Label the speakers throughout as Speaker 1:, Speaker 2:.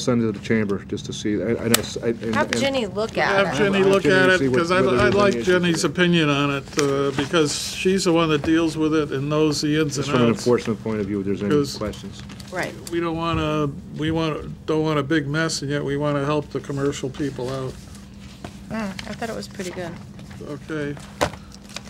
Speaker 1: send it to the chamber just to see. I, I know. s- I- and-
Speaker 2: Have Jenny look at it.
Speaker 1: I'll
Speaker 3: Have Jenny look
Speaker 1: Jenny
Speaker 3: at it,
Speaker 1: see what-
Speaker 3: because I
Speaker 1: whether
Speaker 3: I
Speaker 1: there's
Speaker 3: like
Speaker 1: any issues with
Speaker 3: Jenny's
Speaker 1: it.
Speaker 3: opinion on it, uh, because she's the one that deals with it and knows the ins and
Speaker 1: Just from an
Speaker 3: outs.
Speaker 1: enforcement point of view, if there's any
Speaker 3: Because-
Speaker 1: questions.
Speaker 2: Right.
Speaker 3: We don't want to, we want, don't want a big mess, and yet we want to help the commercial people out.
Speaker 2: I thought it was pretty good.
Speaker 3: Okay,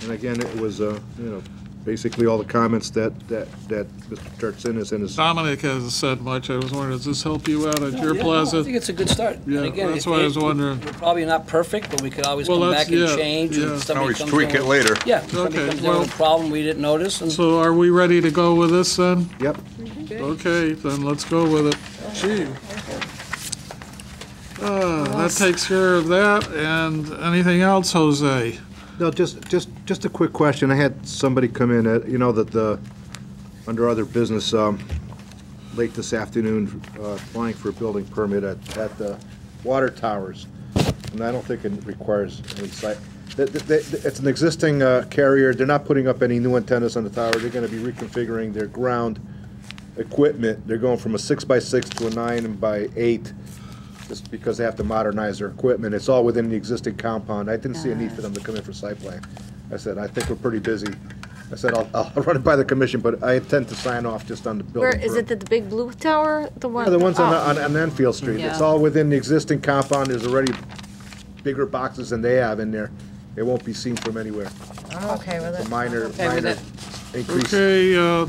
Speaker 1: And again, it was, uh, you know, basically all the comments that, that, that Mr. Turkson is in his.
Speaker 3: Dominic hasn't said much, I was wondering, does this help you out at your
Speaker 4: Yeah, no, I think
Speaker 3: plaza?
Speaker 4: it's a good start. And
Speaker 3: Yeah,
Speaker 4: again,
Speaker 3: that's
Speaker 4: it-
Speaker 3: why I was
Speaker 4: it-
Speaker 3: wondering.
Speaker 4: We're probably not perfect, but we could always
Speaker 3: Well,
Speaker 4: come
Speaker 3: that's-
Speaker 4: back and
Speaker 3: yeah,
Speaker 4: change.
Speaker 3: yeah.
Speaker 4: and somebody
Speaker 5: Always
Speaker 4: comes
Speaker 5: tweak
Speaker 4: in
Speaker 5: it
Speaker 4: with-
Speaker 5: later.
Speaker 4: Yeah, if somebody
Speaker 3: Okay,
Speaker 4: comes in
Speaker 3: well-
Speaker 4: with a problem we didn't notice, and
Speaker 3: So are we ready to go with this, then?
Speaker 1: Yep.
Speaker 3: Okay, then let's go with it. Gee. Uh, That takes care of that, and anything else, Jose?
Speaker 1: No, just, just, just a quick question. I had somebody come in, uh, you know, that the, under other business, um, late this afternoon, uh, applying for a building permit at, at the water towers. And I don't think it requires any site, that, that- that- it's an existing, uh, carrier. They're not putting up any new antennas on the tower. They're gonna be reconfiguring their ground equipment. They're going from a six by six to a nine by eight, just because they have to modernize their equipment. It's all within the existing compound. I didn't see a need for them to come in for site plan. I said, I think we're pretty busy. I said, I'll, I'll run it by the commission, but I intend to sign off just on the building.
Speaker 2: Where, is
Speaker 1: permit.
Speaker 2: it the, the big blue tower, the one?
Speaker 1: Yeah, the ones on,
Speaker 2: oh,
Speaker 1: on on Enfield Street, it's
Speaker 2: Yeah.
Speaker 1: all within the existing compound, there's already bigger boxes than they have in there. It won't be seen from anywhere,
Speaker 2: I'm okay with
Speaker 1: a
Speaker 2: it.
Speaker 1: minor,
Speaker 2: Okay with
Speaker 1: minor
Speaker 2: it.
Speaker 1: increase.
Speaker 3: Okay, uh,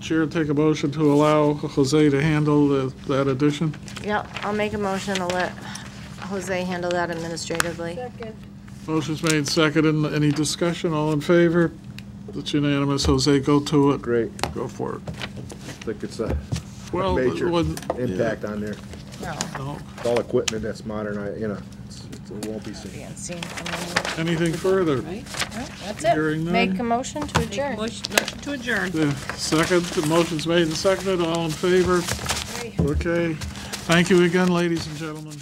Speaker 3: Chair, take a motion to allow Jose to handle the- that addition.
Speaker 2: Yep, I'll make a motion to let Jose handle that administratively.
Speaker 3: Motion's made, seconded. Any discussion? All in favor? It's unanimous. Jose, go to it.
Speaker 1: Great,
Speaker 3: Go for it.
Speaker 1: I think it's a
Speaker 3: Well,
Speaker 1: Major.
Speaker 3: when-
Speaker 1: impact on there,
Speaker 2: No,
Speaker 3: no.
Speaker 1: it's all equipment that's modern, I- you know, it's- it's- it won't be seen.
Speaker 2: being seen.
Speaker 3: anything further?
Speaker 2: That's
Speaker 3: Hearing none.
Speaker 2: Make a motion to adjourn.
Speaker 6: Motion motion to adjourn.
Speaker 3: Yeah, Second, the motion's made and seconded, all in favor? Okay. Thank you again, ladies and gentlemen.